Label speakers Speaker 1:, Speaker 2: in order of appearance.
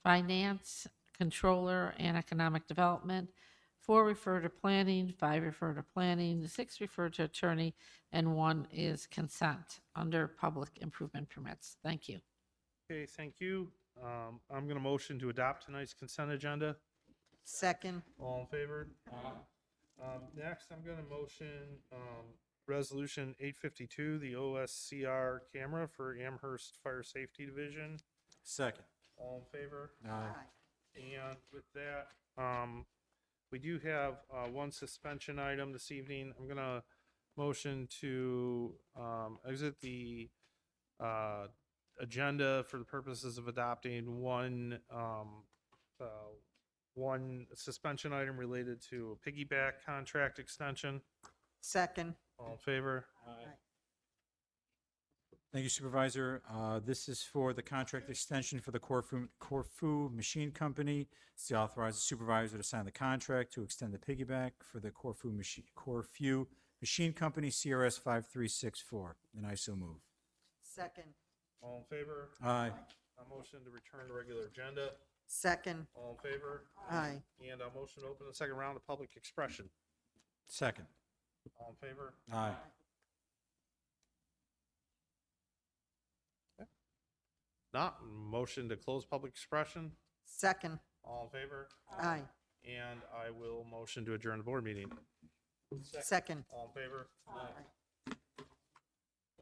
Speaker 1: Finance, Controller, and Economic Development. Four refer to planning, five refer to planning, six refer to attorney, and one is consent under public improvement permits. Thank you.
Speaker 2: Okay, thank you. Um, I'm going to motion to adopt tonight's consent agenda.
Speaker 3: Second,
Speaker 2: All in favor? Um, next, I'm going to motion, um, resolution eight fifty-two, the OSCR camera for Amherst Fire Safety Division.
Speaker 4: Second. Uh,
Speaker 2: All in favor?
Speaker 4: Aye.
Speaker 2: And with that, um, we do have, uh, one suspension item this evening. I'm gonna motion to, um, exit the, uh, agenda for the purposes of adopting one, um, uh, one suspension item related to a piggyback contract extension.
Speaker 3: second,
Speaker 2: All in favor?
Speaker 4: Thank you Supervisor. Uh, This is for the contract extension for the Corfu, Corfu Machine Company. It's to authorize the supervisor to sign the contract to extend the piggyback for the Corfu Machine, Corfu Machine Company CRS 5364. And I so move.
Speaker 3: second,
Speaker 2: All in favor?
Speaker 4: Aye.
Speaker 2: A motion to return to regular agenda.
Speaker 3: second,
Speaker 2: All in favor?
Speaker 3: aye,
Speaker 2: And a motion to open the second round of public expression.
Speaker 4: Second.
Speaker 2: All in favor?
Speaker 4: Aye.
Speaker 2: Not motion to close public expression.
Speaker 3: second,
Speaker 2: All in favor?
Speaker 3: aye,
Speaker 2: And I will motion to adjourn the board meeting.
Speaker 3: second.
Speaker 2: All in favor?